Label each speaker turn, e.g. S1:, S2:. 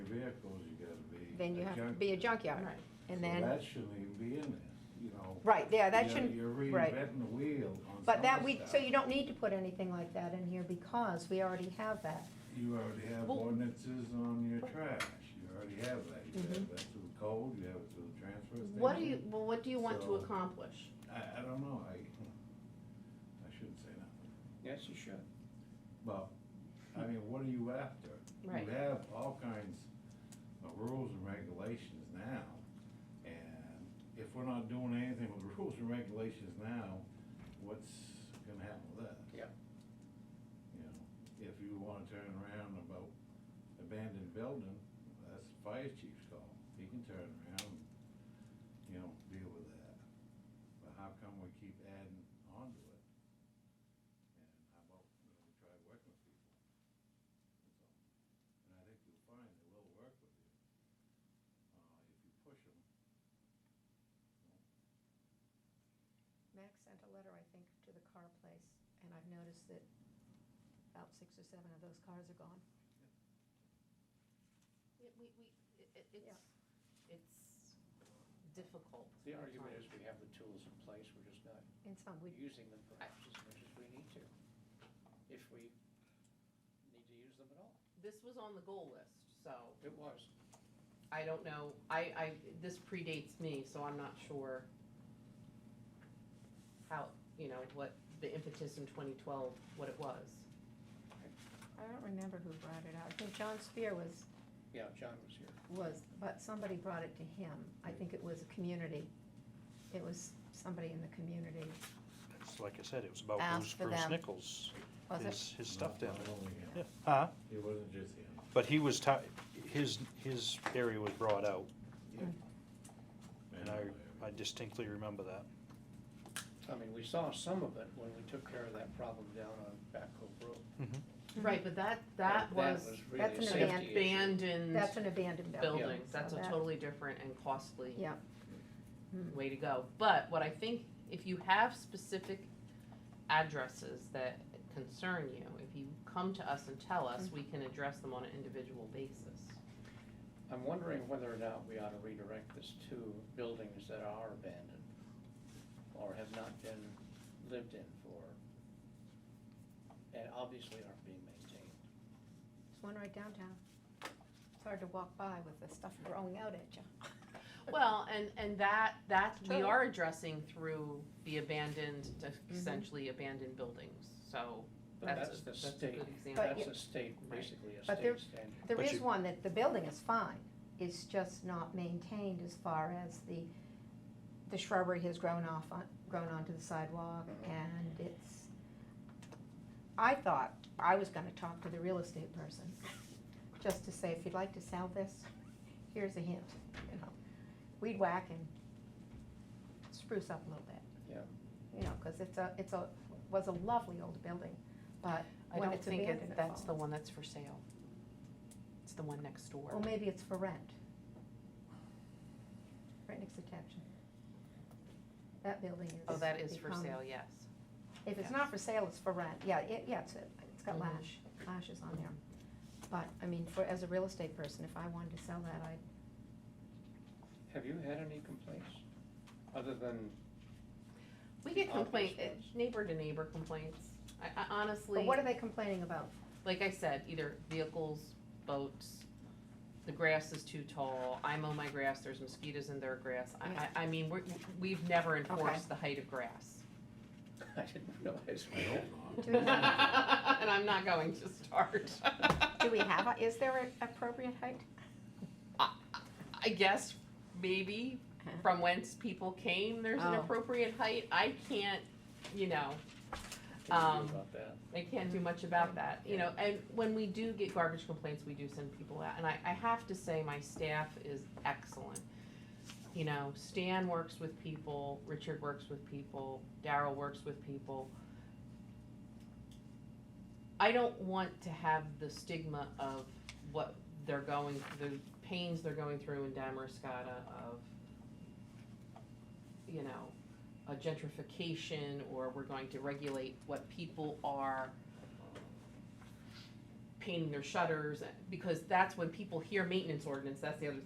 S1: vehicles, you gotta be.
S2: then you
S1: a
S2: have to
S1: junk-
S2: be a junkyard.
S3: Right.
S2: And
S1: So
S2: then,
S1: that shouldn't even be in there, you know.
S2: right, yeah, that
S1: You're-
S2: shouldn't,
S1: You're
S2: right.
S1: reinventing the wheel on
S2: but that
S1: some
S2: we,
S1: stuff.
S2: so you don't need to put anything like that in here because we already have that.
S1: You already have
S3: Well-
S1: ordinances on your trash, you already have that, you
S2: Mm-hmm.
S1: have that through code, you have it through the transfer station.
S3: What do you, well, what do you want to
S1: So-
S3: accomplish?
S1: I, I don't know, I, I shouldn't say nothing,
S4: Yes, you should.
S1: but, I mean, what are you after?
S3: Right.
S1: You have all kinds of rules and regulations now, and if we're not doing anything with the rules and regulations now, what's gonna happen with that?
S4: Yeah.
S1: You know, if you wanna turn around about abandoned building, that's the fire chief's call, he can turn around, and, you know, deal with that. But how come we keep adding on to it? And how about, you know, we try working with people? That's all. And I think you'll find they will work with you, uh, if you push them.
S2: Max sent a letter, I think, to the car place, and I've noticed that about six or seven of those cars are gone.
S3: Yeah, we, we, it, it-
S2: Yeah.
S3: it's, it's difficult.
S4: The argument is we have the tools in place, we're just not
S2: And some, we,
S4: using them perhaps as much as we need to, if we need to use them at all.
S3: This was on the goal list, so
S4: It was.
S3: I don't know, I, I, this predates me, so I'm not sure how, you know, what the impetus in twenty twelve, what it was.
S2: I don't remember who brought it out. I think John Spear was,
S4: Yeah, John was here.
S2: was, but somebody brought it to him. I think it was a community. It was somebody in the community,
S5: It's like I said, it was about
S2: Ask
S5: Bruce,
S2: for
S5: Bruce
S2: them.
S5: Nichols,
S2: was it?
S5: his, his stuff down
S1: Not only him.
S5: there. Huh?
S1: It wasn't just him.
S5: But he was, ti- his, his area was brought out, and I, I distinctly remember that.
S4: I mean, we saw some of it when we took care of that problem down on Back Cove Road.
S2: Mm-hmm.
S3: Right, but that, that was
S4: really
S2: that's
S4: a
S2: an
S4: safety
S2: aban-
S4: issue.
S3: abandoned
S2: That's an abandoned building.
S3: buildings, that's a
S2: So that-
S3: totally different and costly
S2: Yeah, Hmm.
S3: way to go. But what I think, if you have specific addresses that concern you, if you come to us and tell us,
S2: Mm-hmm.
S3: we can address them on an individual basis.
S4: I'm wondering whether or not we ought to redirect this to buildings that are abandoned or have not been lived in for, and obviously aren't being maintained.
S2: there's one right downtown. It's hard to walk by with the stuff growing out at you.
S3: Well, and, and that, that we
S2: True.
S3: are addressing through the abandoned,
S2: Mm-hmm.
S3: essentially abandoned buildings, so
S4: But
S3: that's,
S4: that's
S3: a-
S4: the
S3: that's a
S4: state,
S3: good example.
S2: But
S4: that's a state, basically a
S2: But there-
S4: state standard.
S2: There
S5: But
S2: is
S5: you-
S2: one that, the building is fine, it's just not maintained as far as the, the shrubbery has grown off on, grown onto the sidewalk
S5: Mm-hmm.
S2: and it's, I thought I was gonna talk to the real estate person, just to say, if you'd like to sell this, here's a hint, you know. Weed whack and spruce up a little bit.
S4: Yeah.
S2: You know, cause it's a, it's a, was a lovely old building, but
S3: I
S2: when
S3: don't
S2: it's
S3: think it-
S2: abandoned, it
S3: that's
S2: falls.
S3: the one that's for sale. It's the one next door.
S2: Or maybe it's for rent. Rent needs attention. That building is.
S3: Oh, that is for
S2: become-
S3: sale, yes.
S2: If it's
S3: yeah.
S2: not for sale, it's for rent, yeah, it, yeah, it's, it's got
S3: Mhm.
S2: lash, lashes on there. But, I mean, for, as a real estate person, if I wanted to sell that, I'd,
S4: Have you had any complaints, other than,
S3: We get
S4: Office
S3: complaint, eh,
S4: ones.
S3: neighbor to neighbor complaints. I, I
S2: but
S3: honestly,
S2: what are they complaining about?
S3: like I said, either vehicles, boats, the grass is too tall, I mow my grass, there's mosquitoes in their grass. I,
S2: Yeah.
S3: I, I mean, we're, we've never enforced the height of grass.
S4: I didn't realize.
S1: I hope
S2: Do we
S1: not.
S2: have-
S3: And I'm not going to start.
S2: Do we have, a- is there an appropriate height?
S3: I guess maybe
S2: Huh?
S3: from whence people came, there's an
S2: Uh-huh. Oh.
S3: appropriate height. I can't, you know,
S4: What do you
S3: Um,
S4: do about that?
S3: They can't do much about that, you know, and when we do get garbage complaints, we do send people out, and I, I have to say, my staff is excellent. You know, Stan works with people, Richard works with people, Daryl works with people. I don't want to have the stigma of what they're going, the pains they're going through in Damariscotta of, you know, a gentrification or we're going to regulate what people are painting their shutters, because that's when people hear maintenance ordinance, that's the other